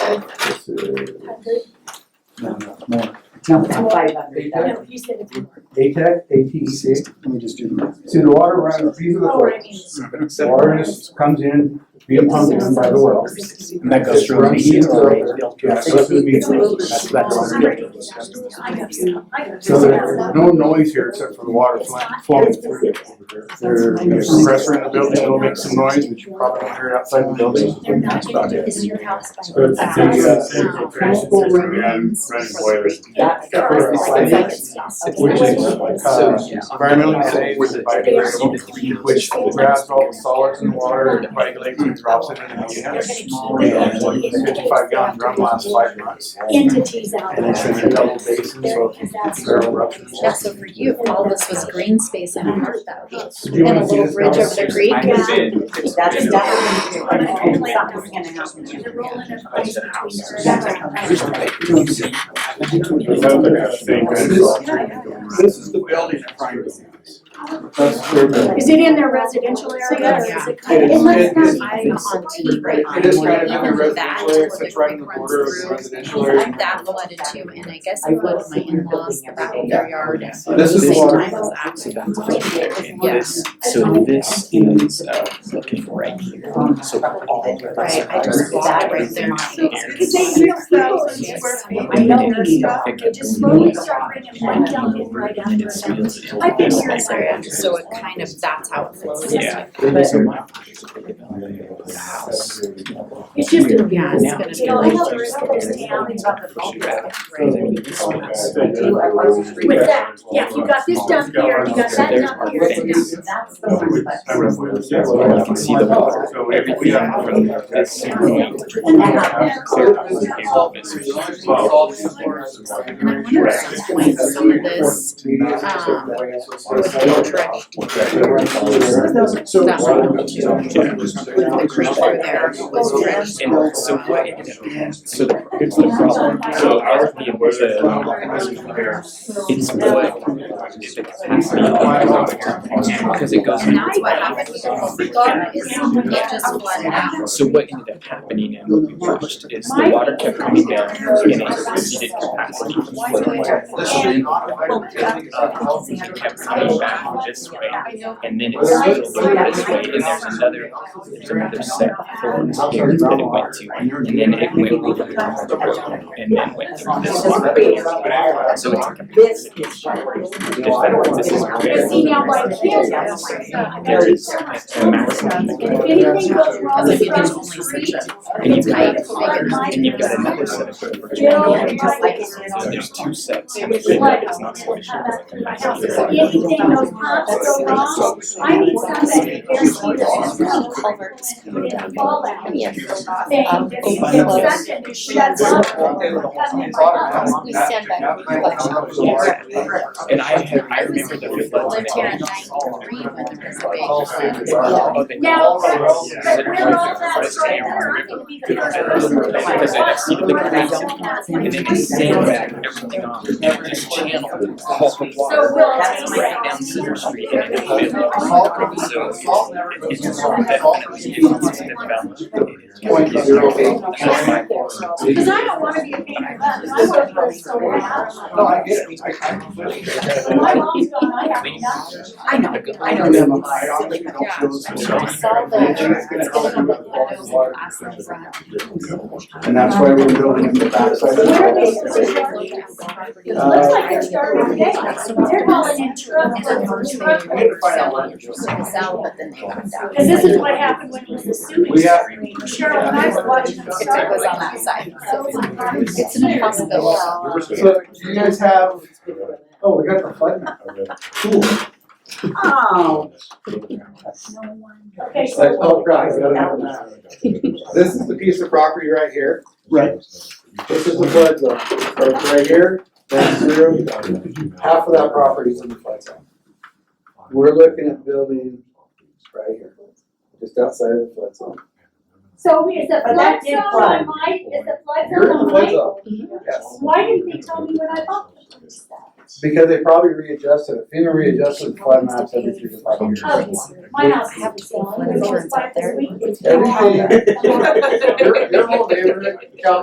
This is, No, no, more. Tell me. Five hundred thousand. No, you said it's more. ATEC, ATC, Let me just do the math. E see the water runs, these are the Oh, right. folks. Water is, comes in via pump in by the well. And that goes through. Runs these over, yeah, it goes to the meter. That's- that's- I got some, I got So some. there's no noise here except for the water fl- flowing through it over here. There- There's a compressor in the building, it'll make some noise, but you probably won't hear it outside the building. They're not That's about gonna do it. this in your house by So it's a themselves. big, uh, Um, That's the Or it's like first a one. second stop. Which is So, uh, yeah. environmentally safe, it's biodegradable, which grabs all the solids in the water, coagulates and drops it in. the They're unit. gonna keep And like a fifty-five gallon drum lasts five months. entities out And it's in there. a double basin, There, so because that's. barrel ruptures. Yeah, so for you, all this was green space and a park that would be, Do you and wanna a see little this bridge over the downstairs? creek. I Yeah. did. It's That's been- definitely But I feel like something's that's gonna happen. And the rolling of That's ice an house. between her. Here's the thing. You don't see it. This is the building in front of us. That's Is it in their residential area or is Yeah. it kind of? It is- looks it is- not- I'm on TV right now. It is kind of in the Even that, residential where area, the it's right in the creek border of runs the through, residential area. That flooded too, and I guess it flooded my in-laws, the back of their yard. This is Same water. time as accident. Yes, so this is, uh, looking for right here, so all of this. Right, I just walked right there. Cause they, you know, people in this, I know their stuff, they just slowly start bringing one dump in right after another. I've been here This area, so it kind of, that's how it flows. Yeah. The house. It's just a. Yeah, it's gonna You be know, I know like. there's others down in the. With With that, yeah, you got this dump here, you got that dump here, and now. That's the one, but. Well, you can see the water. Everything. This area. And then up there. Clear up this here, all this is- And I wonder at some point, some of this um, would be dredged So. That one. Yeah. the creek through there was dredged. And so what ended up, so the, here's the problem, so our thing was that it's what, is the capacity of the water, because it goes. And that's what happened with the whole weekend, is it just flooded out. So what ended up happening and what we watched is the water kept coming down and it exceeded capacity. for the well. It kept coming back this way and then it spilled over this way and there's another, there's another set of forms here that it went to. And then it went over the road and then went through this water. So it's This is. This is But see now, like here, there is a maximum. that And can if be done. anything goes wrong Because if you across the can only street, switch it. And you've got it's like my- another, and you've got another set of. footprints. Bill, Yeah, just like it's- So there's two sets. It and was that flooded, is not it sufficient. come back through my house, so anything those pumps go wrong, I need somebody to guarantee that there's no Culverts coming down. fall out. Yes. They, Um, this oh, is by the way. such an issue, that's not, coming in my house. We stand by the And I had, I remember the flood Lived here in today. ninety-three when there was a big flood. Oh, they- Now, that's, Yeah. but we're all that straight, I'm not gonna be the first person to Because it exceeded the capacity. And then it So sandbagged everything off, and it just channeled all the water we'll right down Center Street and it filled. So it's, it's definitely, it's developed. Point zero eight. Cause I don't wanna be a pain in the butt, I wanna be the sole No, one. I get it, I, I completely get it. My mom's gone, I have nothing. I know, I know. Yeah. I saw the, it's going on the windows and glass in the front. And that's why we're building in the backside. of the Where are they house. supposed to It looks like they're starting today, they're calling in trucks And the first thing they and were selling was the cell, but then they got down. Cause this is what happened when it was the sewage We have- stream. Cheryl and I was watching them If it start. was on that side. Oh my God. It's an impossibility. So do you guys have, oh, we got the flood map. Cool. Oh. Okay, so Like, oh, guys, I don't have a map. This is the piece of property right here. Right. This is the flood zone. Right, right here, that's zero. Half of that property is in the flood zone. We're looking at building right here, just outside of the flood zone. So is the But flood that zone did flood. on my, is the flood You're zone in the on flood my? zone, yes. Why didn't they tell me when I bought the place Because they probably readjusted, it. FEMA readjusted the flood maps every three to five years. Oh, my house is selling, it was like this week. it's- Everything, your, your whole neighborhood, county,